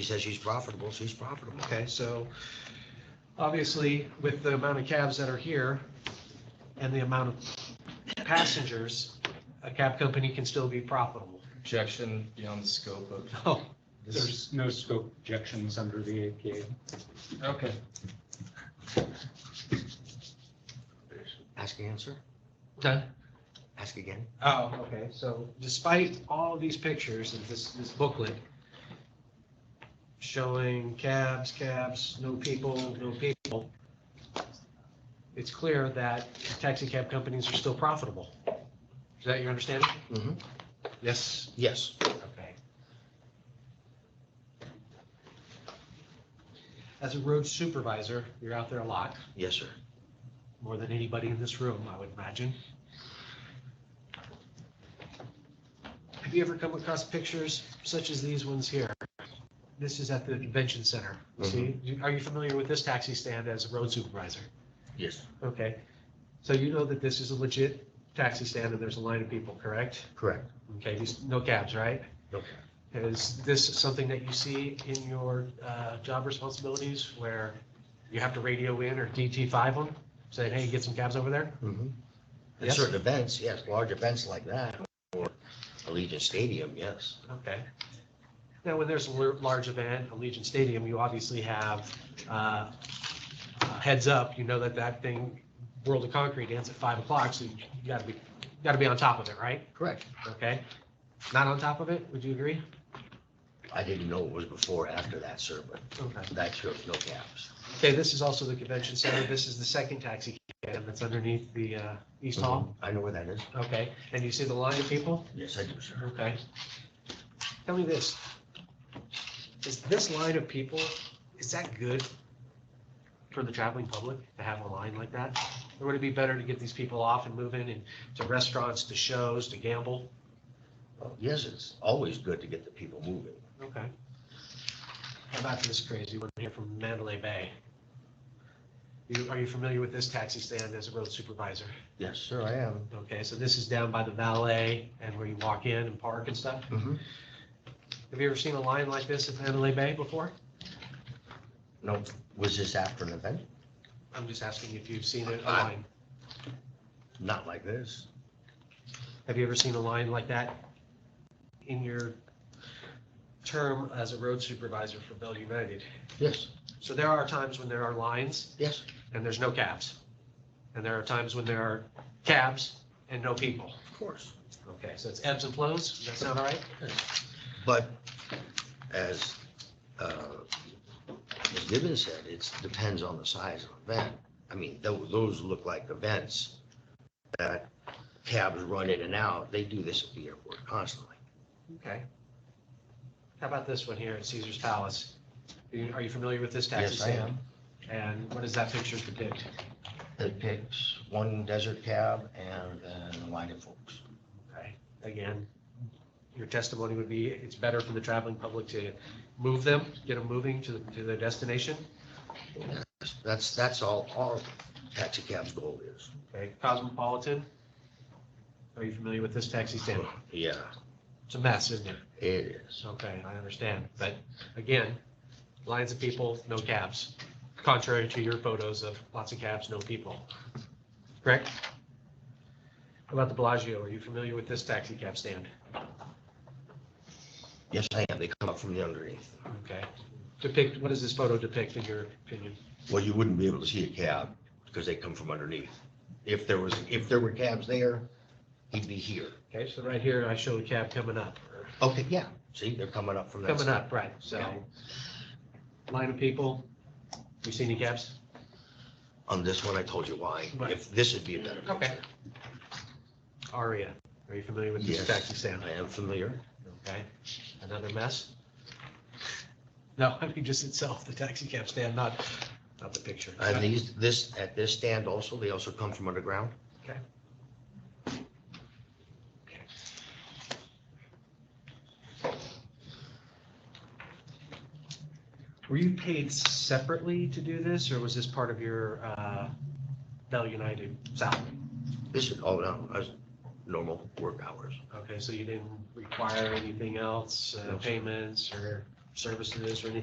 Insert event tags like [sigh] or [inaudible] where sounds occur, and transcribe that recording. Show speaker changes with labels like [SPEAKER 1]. [SPEAKER 1] She says she's profitable, she's profitable.
[SPEAKER 2] Okay, so obviously with the amount of cabs that are here and the amount of passengers, a cab company can still be profitable.
[SPEAKER 3] objection beyond the scope of,
[SPEAKER 2] Oh,
[SPEAKER 4] There's no scope objections under the APA.
[SPEAKER 3] okay.
[SPEAKER 1] Ask answer,
[SPEAKER 2] done.
[SPEAKER 1] ask again.
[SPEAKER 2] Oh, okay, so despite all of these pictures and this, this booklet showing cabs, cabs, no people, no people, it's clear that taxi cab companies are still profitable. Is that your understanding?
[SPEAKER 1] Mhm.
[SPEAKER 2] Mm-hmm. Yes.
[SPEAKER 1] Yes,
[SPEAKER 2] Okay. As a road supervisor, you're out there a lot,
[SPEAKER 1] yes, sir.
[SPEAKER 2] more than anybody in this room, I would imagine. Have you ever come across pictures such as these ones here? This is at the convention center. See, you- are you familiar with this taxi stand as a road supervisor?
[SPEAKER 1] Yes.
[SPEAKER 2] Okay, so you know that this is a legit taxi stand and there's a line of people, correct?
[SPEAKER 1] Correct.
[SPEAKER 2] Okay, these- no cabs, right?
[SPEAKER 1] Okay.
[SPEAKER 2] Is this something that you see in your uh, job responsibilities where you have to radio in or DT5 them, saying, hey, get some cabs over there?
[SPEAKER 1] Mhm. At
[SPEAKER 2] Yes.
[SPEAKER 1] certain events, yes, large events like that, or Allegiant Stadium, yes.
[SPEAKER 2] Okay. Now, when there's a lar- large event, Allegiant Stadium, you obviously have uh, uh, heads up, you know that that thing, World of Concrete ends at 5 o'clock, so you gotta be, gotta be on top of it, right?
[SPEAKER 1] Correct.
[SPEAKER 2] Okay? Not on top of it, would you agree?
[SPEAKER 1] I didn't know it was before, or after that, sir, but
[SPEAKER 2] Okay.
[SPEAKER 1] that shows no gaps.
[SPEAKER 2] Okay, this is also the convention center. This is the second taxi cab that's underneath the uh, East Hall.
[SPEAKER 1] Mm-hmm. I know where that is.
[SPEAKER 2] Okay, and you see the line of people?
[SPEAKER 1] Yes, I do, sir.
[SPEAKER 2] Okay. Tell me this. Is this line of people, is that good for the traveling public to have a line like that? Or would it be better to get these people off and move in and to restaurants, to shows, to gamble?
[SPEAKER 1] Well, Oh, Yes, it's always good to get the people moving.
[SPEAKER 2] Okay. How about this crazy one here from Mandalay Bay? You, are you familiar with this taxi stand as a road supervisor?
[SPEAKER 1] Yes, sir, I am.
[SPEAKER 2] Okay, so this is down by the valet and where you walk in and park and stuff.
[SPEAKER 1] Mhm.
[SPEAKER 2] Have you ever seen a line like this at Mandalay Bay before?
[SPEAKER 1] No, was this after an event?
[SPEAKER 2] I'm just asking if you've seen a a
[SPEAKER 1] I-
[SPEAKER 2] line.
[SPEAKER 1] Not like this.
[SPEAKER 2] Have you ever seen a line like that in your term as a road supervisor for Bell United?
[SPEAKER 1] Yes,
[SPEAKER 2] So there are times when there are lines
[SPEAKER 1] yes,
[SPEAKER 2] and there's no cabs. And there are times when there are cabs and no people.
[SPEAKER 1] of course.
[SPEAKER 2] Okay, so it's ebbs and flows. Does that sound all right?
[SPEAKER 1] But as uh, Ms. Gibbons said, it depends on the size of the event. I mean, tho- those look like events that cabs run in and out. They do this at the airport constantly.
[SPEAKER 2] Okay. How about this one here at Caesar's Palace? Are you- Are you familiar with this taxi
[SPEAKER 1] Yes, I
[SPEAKER 2] stand?
[SPEAKER 1] am.
[SPEAKER 2] And what does that picture depict?
[SPEAKER 1] It picks one desert cab and then a line of folks.
[SPEAKER 2] Okay, again, your testimony would be, it's better for the traveling public to move them, get them moving to, to their destination.
[SPEAKER 1] That's, that's all, all taxi cabs' goal is.
[SPEAKER 2] Okay, Cosmopolitan, are you familiar with this taxi stand?
[SPEAKER 1] Yeah,
[SPEAKER 2] It's a mess, isn't it?
[SPEAKER 1] it is.
[SPEAKER 2] It's okay, I understand, but again, lines of people, no cabs, contrary to your photos of lots of cabs, no people. Correct? How About the Bellagio, are you familiar with this taxi cab stand?
[SPEAKER 1] Yes, I am. They come up from the underneath.
[SPEAKER 2] Okay, depict, what does this photo depict in your opinion?
[SPEAKER 1] Well, you wouldn't be able to see a cab because they come from underneath. If there was, if there were cabs there, he'd be here.
[SPEAKER 2] Okay, so right here, I show a cab coming up, or
[SPEAKER 1] Okay, yeah, see, they're coming up from that.
[SPEAKER 2] coming
[SPEAKER 1] side.
[SPEAKER 2] up, right, so. Line of people, you see any cabs?
[SPEAKER 1] On this one, I told you why.
[SPEAKER 2] Right.
[SPEAKER 1] If this would be a better
[SPEAKER 2] Okay.
[SPEAKER 1] picture.
[SPEAKER 2] Aria, are you familiar with this
[SPEAKER 1] Yes.
[SPEAKER 2] taxi stand?
[SPEAKER 1] I am familiar.
[SPEAKER 2] Okay, another mess? No, [laughs] I mean, just itself, the taxi cab stand, not, not the picture.
[SPEAKER 1] And these, this, at this stand also, they also come from underground?
[SPEAKER 2] Were you paid separately to do this, or was this part of your, uh, Bell United salary?
[SPEAKER 1] This is all, no, that's normal work hours.
[SPEAKER 2] Okay, so you didn't require anything else, uh,
[SPEAKER 1] No, sir.
[SPEAKER 2] payments or services or anything